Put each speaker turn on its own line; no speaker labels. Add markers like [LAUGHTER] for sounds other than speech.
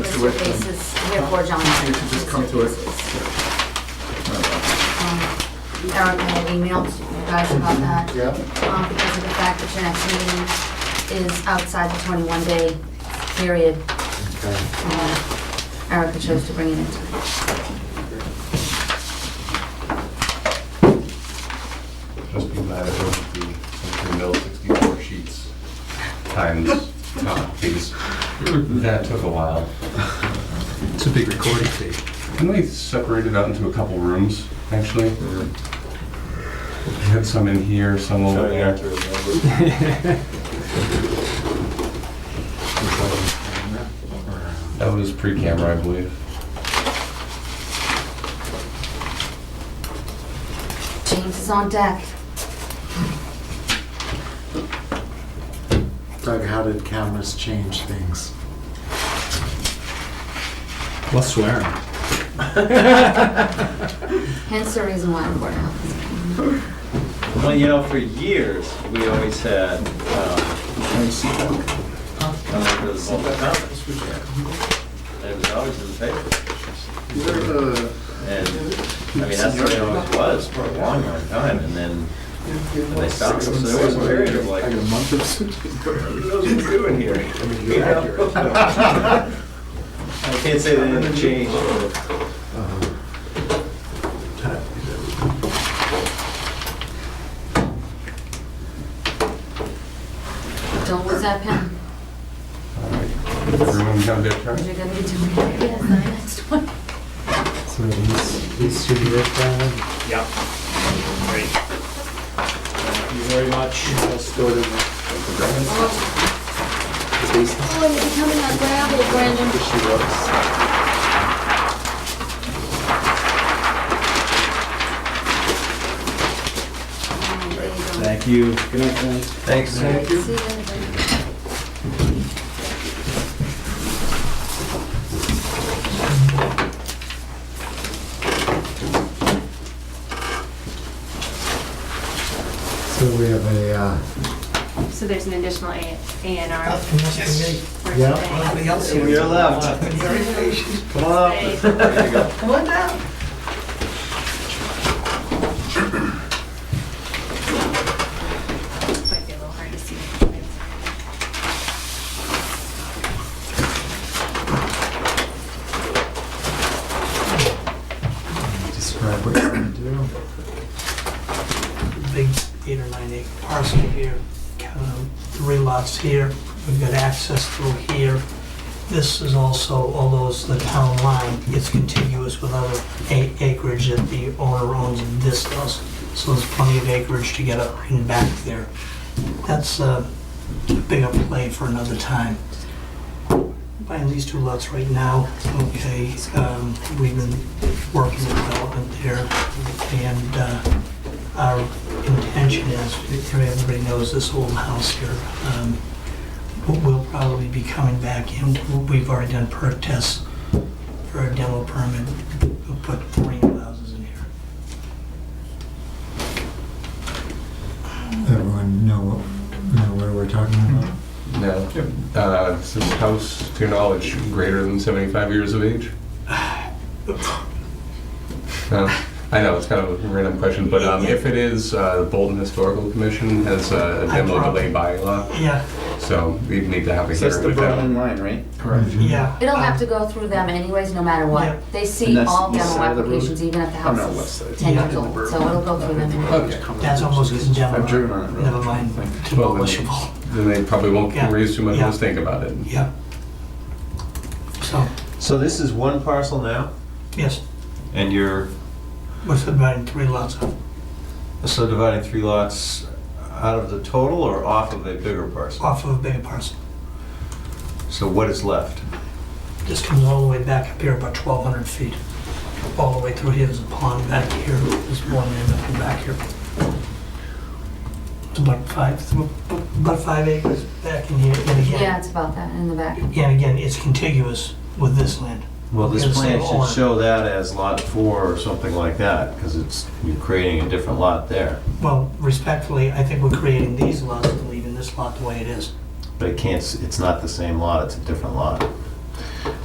to it.
basis, therefore John.
You should just come to it.
Um, Eric had emailed you guys about that.
Yeah.
Um, because of the fact that your next meeting is outside the twenty-one day period,
Okay.
uh, Erica chose to bring it in tonight.
Just be glad it won't be something mill sixty-four sheets times copies. That took a while.
It's a big recording fee.
Can we separate it out into a couple rooms, actually? We Had some in here, some over there. That was pre-camera, I believe.
James is on deck.
Doug, how did cameras change things?
Less swearing.
Hence the reason why I'm bored out.
Well, you know, for years, we always had, um, come up with all the comments. It was always in the paper. And, I mean, that's the way it always was for a long, long time, and then they stopped. So there was a period of like,
I got a
who
month of
knows what we're
[LAUGHS]
doing here? You know? [LAUGHS] I can't say that it changed. but
Don't lose that pen,
All right. Everyone have their
because
turn?
you're gonna be doing it again in the next one.
So these, these should be ripped out.
Yeah. Great. Thank you very much. Let's go to.
Oh, and you're becoming a gravel, Brandon. There you go.
Thank you. Good night, guys.
Thanks.
See you later.
So we have a, uh,
So there's an additional A and R for today.
Yeah.
You're left. Come on up.
Today.
There you go.
Might be a little hard to see.
describe what you're gonna do.
big eight or nine acre parcel here, kind of three lots here, we've got access through here. This is also, although it's the town line, it's contiguous with other a- acreage that the owner owns and this does. So there's plenty of acreage to get up and back there. That's uh, a bigger play for another time. Buying these two lots right now, okay, um, we've been working development there and, uh, our intention is, everybody knows this old house here, um, we- we'll probably be coming back in, we've already done perk tests for a demo permit, we'll put three new houses in here.
Everyone know, know where we're talking about?
No. Uh, Is this house, to your knowledge, greater than 75 years of age? No? I know, it's kind of a random question, but um, if it is, uh, the Bolton Historical Commission has uh, a demo delay bylaw,
Yeah,
so we'd need to have a
That's
hearing
the
with
Berlin
that.
line, right?
Correct.
yeah.
It'll have to go through them anyways, no matter
Um, Yeah.
what. They see
And that's
all
east
demo
side of the road?
applications, even if the
Oh, no,
house
west
is
side.
ten
Yeah.
years old, so it'll go through them. anyway.
Okay.
Um, That's almost as
I've driven
demo,
on it. really.
never mind
Well, then-
demolishable,
Then they probably won't
Yeah.
raise too much of
Yeah.
a stink about it.
yeah. So,
So this is one parcel now,
yes,
and you're
we're submitting three lots of
So dividing three lots out of the total or off of a bigger parcel?
off of a bigger parcel.
So what is left?
This comes all the way back up here about 1,200 feet. All the way through here, there's a pond back here, there's more land up and back here. It's about five, about five acres back in here, and
Yeah,
again,
it's about that in the back.
and again, it's contiguous with this land.
Well, this
It's
plan
all-
should show that as lot four or something like that, because it's, you're creating a different lot there.
Well, respectfully, I think we're creating these lots and leaving this lot the way it is.
But it can't, s- it's not the same lot, it's a different lot.